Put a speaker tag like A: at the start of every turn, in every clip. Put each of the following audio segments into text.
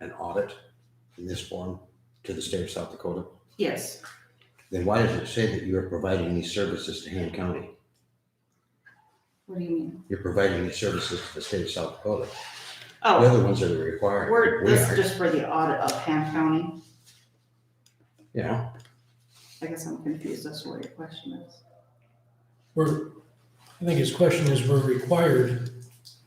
A: an audit in this form to the state of South Dakota?
B: Yes,
A: Then why does it say that you are providing these services to Han County?
B: what do you mean?
A: You're providing these services to the state of South Dakota. The
B: Oh,
A: other ones are required.
B: we're,
A: We
B: this
A: are,
B: is just for the audit of Ham County,
A: You know,
B: I guess I'm confused, that's what your question is.
C: We're, I think his question is, we're required,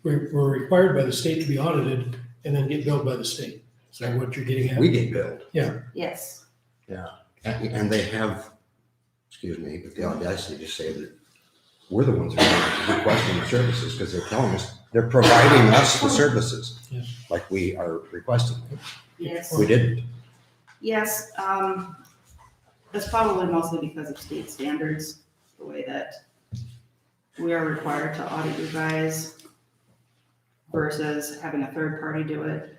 C: we're, we're required by the state to be audited and then get billed by the state. Is that what you're getting
A: we
C: at?
A: get billed.
B: Yes,
A: And and they have, excuse me, but the audacity to say that we're the ones who are requesting the services because they're telling us, they're providing us the services.
C: Yes.
A: Like we are requesting. them.
B: yes,
A: We didn't.
B: yes, um, that's probably mostly because of state standards, the way that we are required to audit you guys versus having a third party do it.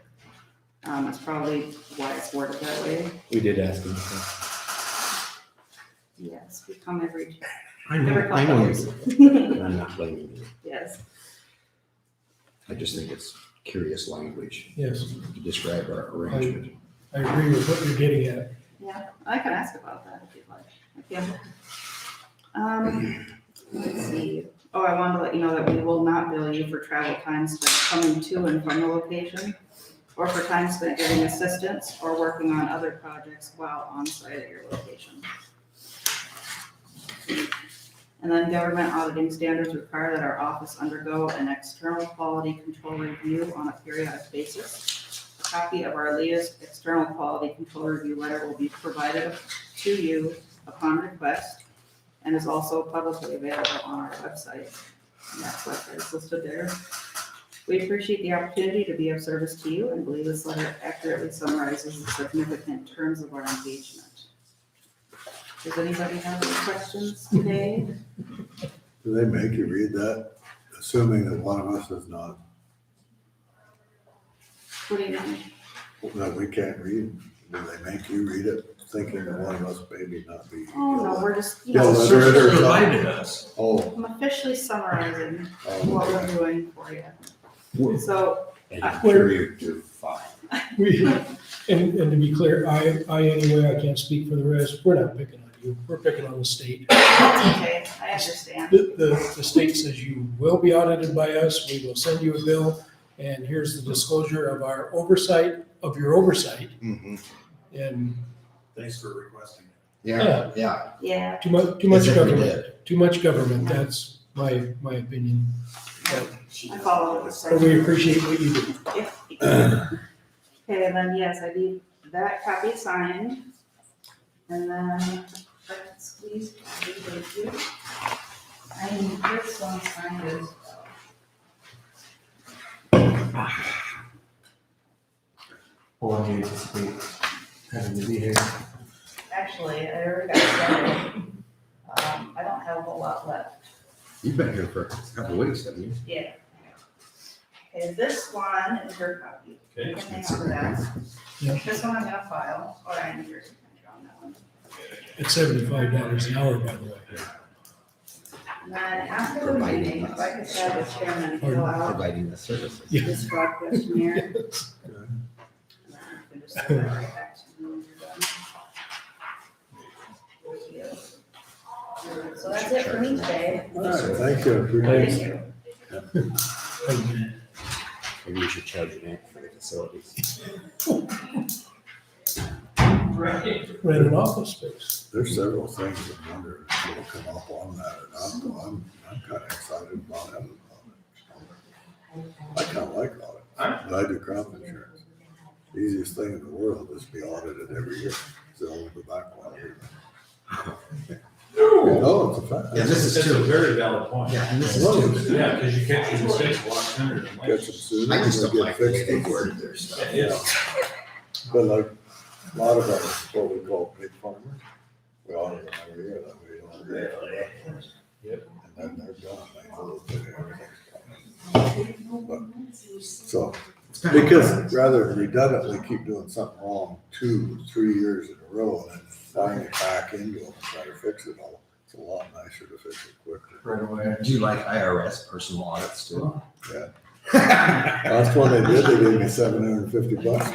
B: Um, that's probably why it's worded that way.
D: We did ask him. so.
B: Yes, we come every,
A: I
B: every
A: know, I
B: couple
A: know.
B: years.
A: you do. I'm not blaming you.
B: Yes,
A: I just think it's curious language
C: Yes,
A: to describe our arrangement.
C: I agree with what you're getting at.
B: I can ask about that if you'd like. Okay. Um, let's see. Oh, I wanted to let you know that we will not bill you for travel time spent coming to and from the location or for time spent giving assistance or working on other projects while on site at your location. And then government auditing standards require that our office undergo an external quality control review on a periodic basis. A copy of our latest external quality control review letter will be provided to you upon request and is also publicly available on our website. And that website is listed there. We appreciate the opportunity to be of service to you and believe this letter accurately summarizes the significant terms of our engagement. Does anybody have any questions today?
E: Do they make you read that, assuming that one of us is not,
B: What do you mean?
E: that we can't read? Do they make you read it, thinking that one of us maybe not be?
B: Oh, no, we're just, you
E: Yeah,
B: know,
E: letter
B: officially-
E: or something.
F: provided us.
E: Oh,
B: I'm officially summarizing what
E: oh,
B: we're
E: okay.
B: doing for you.
A: Whoa.
B: So
A: And I'm curious to find.
C: We, and, and to be clear, I, I anyway, I can't speak for the rest, we're not picking on you, we're picking on the state.
B: That's okay, I understand.
C: The, the, the state says you will be audited by us, we will send you a bill, and here's the disclosure of our oversight, of your oversight,
A: Mhm.
C: and
F: Thanks for requesting.
A: Yeah, yeah.
B: Yeah,
C: too much, too much
A: As if we
C: government.
A: did.
C: too much government, that's my, my opinion.
B: I follow the
C: But we appreciate what you do.
B: Okay, and then, yes, I need that copy signed. And then, that's please, thank you. I need this one signed as well.
D: Hold on, you anticipate having to be here.
B: Actually, I already got started. Um, I don't have a whole lot left.
A: You've been here for a couple of weeks, haven't you?
B: Yeah. Okay, this one is your copy.
F: Okay.
B: And hang on to that.
C: Yeah.
B: This one I'm gonna file, or I need your signature on that one.
C: It's seventy-five dollars an hour, by the way.
B: And then after the meeting, if I could have the chairman fill out
A: Providing the services.
C: Yeah.
B: this fraud questionnaire. And then I can just send that right back to you when you're done. Thank you. So that's it for me today.
E: All right, thank you, appreciate
B: Thank
E: it.
B: you.
A: Maybe we should charge an act for the facilities.
F: Right.
C: Rent an office space.
E: There's several things that wonder if will come up on that or not, so I'm, I'm kinda excited about having audit. I kinda like audit, but I do crop insurance. The Easiest thing in the world is be audited every year, so I'll go back one year. No, it's a fact.
A: Yeah, this is
F: That's a
A: true.
F: very valid point.
A: Yeah, and this is
E: Hello.
A: too.
F: Yeah, because you catch your mistakes a lot sooner than later.
E: Catch them soon.
A: I just
E: they'll
A: don't
E: get
A: like the way they
E: fixed.
A: worded their stuff.
F: Yeah, yeah.
E: But like, a lot of us, what we call pig farmers, we audit them every year, that we don't. agree on their records.
F: Yep.
E: And then they're gone, they know that everything's gone. But, So, because rather than redundantly keep doing something wrong two, three years in a row and then flying it back into them, and try to fix it all, it's a lot nicer to fix it quickly.
D: Right away.
A: Do you like IRS personal audits too?
E: That's when they did, they gave me seven hundred and fifty bucks